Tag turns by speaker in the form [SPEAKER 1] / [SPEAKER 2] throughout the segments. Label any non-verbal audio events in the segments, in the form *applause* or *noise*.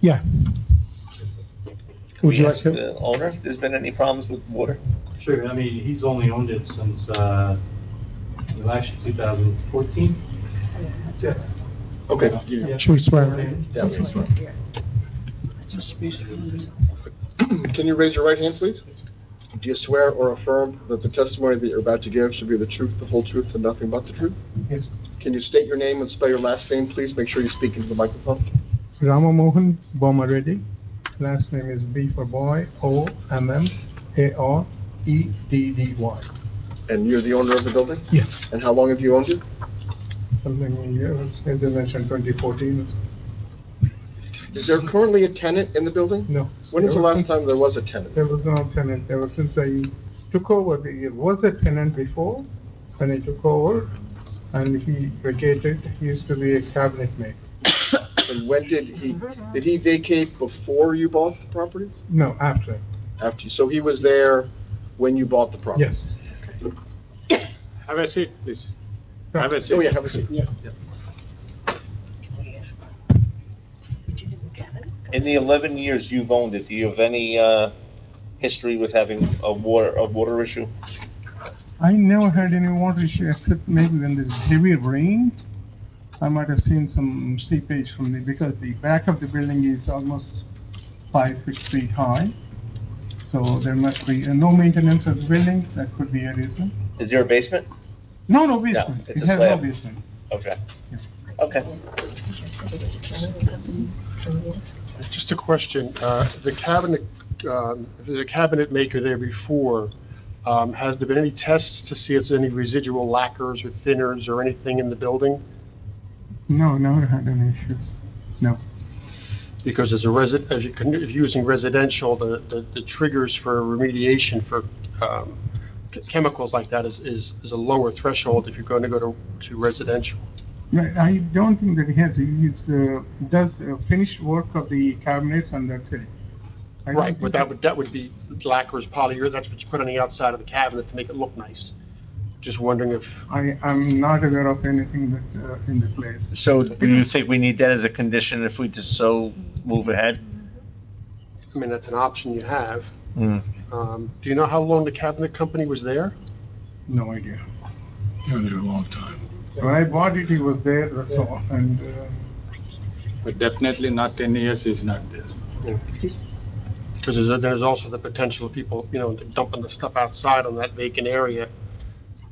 [SPEAKER 1] Yeah. Would you like
[SPEAKER 2] Can we
[SPEAKER 1] to?
[SPEAKER 2] ask the owner if there's been any problems with water?
[SPEAKER 3] Sure, I mean, he's only owned it since, uh, last 2014.
[SPEAKER 4] Yes.
[SPEAKER 5] Okay.
[SPEAKER 3] Yeah.
[SPEAKER 1] Should we swear? in?
[SPEAKER 5] Yeah, please, sir.
[SPEAKER 4] Yes,
[SPEAKER 5] *clears throat* Can you raise your right hand, please? Do you swear or affirm that the testimony that you're about to give should be the truth, the whole truth, and nothing but the truth?
[SPEAKER 1] Yes.
[SPEAKER 5] Can you state your name and spell your last name, please? Make sure you speak into the microphone.
[SPEAKER 1] Ramamohan Boma Reddy. Last name is B for boy, O M M A R E D D Y.
[SPEAKER 5] And you're the owner of the building?
[SPEAKER 1] Yeah.
[SPEAKER 5] And how long have you owned it?
[SPEAKER 1] Something in here, as I mentioned, 2014.
[SPEAKER 5] Is there currently a tenant in the building?
[SPEAKER 1] No.
[SPEAKER 5] When is the
[SPEAKER 1] Ever
[SPEAKER 5] last
[SPEAKER 1] since-
[SPEAKER 5] time there was a tenant?
[SPEAKER 1] There was no tenant. Ever since I took over, there was a tenant before when I took over and he vacated. He used to be a cabinet maker.
[SPEAKER 5] And when did he, did he vacate before you bought the property?
[SPEAKER 1] No, after.
[SPEAKER 5] After, you? so he was there when you bought the property?
[SPEAKER 1] Yes.
[SPEAKER 6] Have a seat, please. Have a seat.
[SPEAKER 5] Oh, yeah, have a seat.
[SPEAKER 2] In the 11 years you've owned it, do you have any uh, history with having a water, a water issue?
[SPEAKER 1] I never had any water issue except maybe when there's heavy rain. I might have seen some seepage from the, because the back of the building is almost five, six feet high. So there must be, and no maintenance of the building, that could be a reason.
[SPEAKER 2] Is there a basement?
[SPEAKER 1] No, no basement.
[SPEAKER 2] it's
[SPEAKER 1] It
[SPEAKER 2] a
[SPEAKER 1] has no
[SPEAKER 2] slab.
[SPEAKER 1] basement.
[SPEAKER 2] Okay. Okay.
[SPEAKER 6] Just a question, uh, the cabinet, um, if there's a cabinet maker there before, um, has there been any tests to see if there's any residual lacquers or thinners or anything in the building?
[SPEAKER 1] No, never had any issues. No.
[SPEAKER 6] Because as a resident, as you can, if you're using residential, the, the- the triggers for remediation for, um, ch- chemicals like that is, is, is a lower threshold if you're going to go to, to residential.
[SPEAKER 1] Right, I don't think that he has, he's, uh, does uh, finished work of the cabinets and that's it. I don't
[SPEAKER 6] Right,
[SPEAKER 1] think
[SPEAKER 6] but that would, that would be lacquers, polyurethane, that's what you put on the outside of the cabinet to make it look nice. Just wondering if,
[SPEAKER 1] I, I'm not aware of anything that, uh, in the place.
[SPEAKER 7] So do you think we need that as a condition if we just so move ahead?
[SPEAKER 6] I mean, that's an option you have.
[SPEAKER 7] Hmm.
[SPEAKER 6] Um, Do you know how long the cabinet company was there?
[SPEAKER 1] No idea. Been there a long time. When I bought it, he was there, that's all, and, uh,
[SPEAKER 8] But definitely not 10 years is not there.
[SPEAKER 6] Because there's, there's also the potential of people, you know, dumping the stuff outside on that vacant area.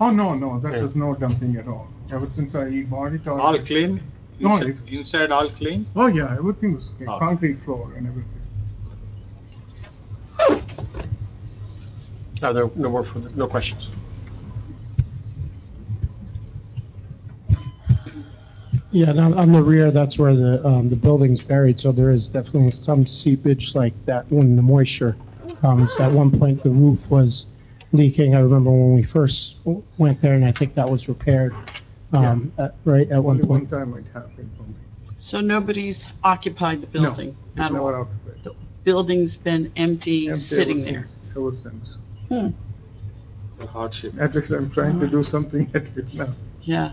[SPEAKER 1] oh, no, no, that
[SPEAKER 6] Yeah.
[SPEAKER 1] was no dumping at all. Ever since I bought it,
[SPEAKER 8] All
[SPEAKER 1] all,
[SPEAKER 8] clean?
[SPEAKER 1] No,
[SPEAKER 8] Inside-
[SPEAKER 1] it-
[SPEAKER 8] Inside all clean?
[SPEAKER 1] oh, yeah, everything was clean,
[SPEAKER 8] Oh.
[SPEAKER 1] concrete floor and everything.
[SPEAKER 6] No, there, no more, further- no questions.
[SPEAKER 9] Yeah, and on, on the rear, that's where the, um, the building's buried, so there is definitely some seepage like that when the moisture comes. At one point, the roof was leaking. I remember when we first w- went there, and I think that was repaired, um, at, right, at one
[SPEAKER 1] Only one
[SPEAKER 9] point.
[SPEAKER 1] time it happened for me.
[SPEAKER 10] So nobody's occupied the
[SPEAKER 1] No,
[SPEAKER 10] building
[SPEAKER 1] it
[SPEAKER 10] at
[SPEAKER 1] never
[SPEAKER 10] all?
[SPEAKER 1] occupied.
[SPEAKER 10] Building's been empty,
[SPEAKER 1] Empty ever
[SPEAKER 10] sitting there?
[SPEAKER 1] since- Ever since.
[SPEAKER 8] The Hardship.
[SPEAKER 1] At least I'm trying to do something *laughs* at least now.
[SPEAKER 10] Yeah.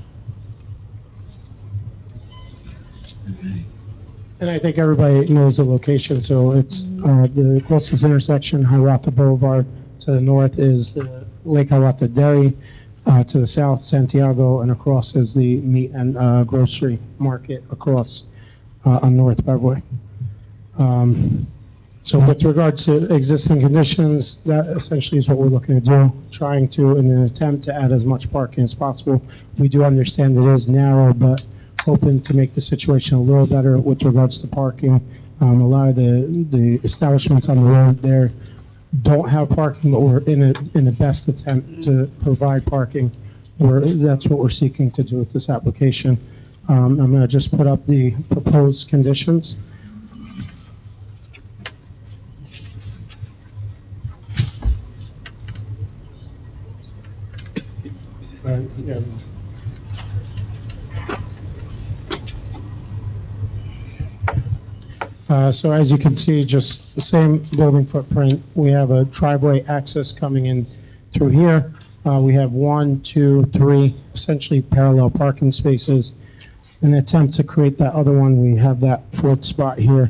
[SPEAKER 9] And I think everybody knows the location, so it's, uh, the closest intersection, Hirata Boulevard, to the north is the Lake Hirata Dairy, uh, to the south, Santiago, and across is the meat and, uh, grocery market across, uh, on North Beverly. Um, so with regard to existing conditions, that essentially is what we're looking to do, trying to, in an attempt to add as much parking as possible. We do understand it is narrow, but hoping to make the situation a little better with regards to parking. Um, a lot of the, the establishments on the road there don't have parking, but we're in a, in the best attempt to provide parking. We're, that's what we're seeking to do with this application. Um, I'm gonna just put up the proposed conditions. Uh, yeah. Uh, So as you can see, just the same building footprint. We have a driveway access coming in through here. Uh, We have one, two, three, essentially parallel parking spaces. In an attempt to create that other one, we have that fourth spot here.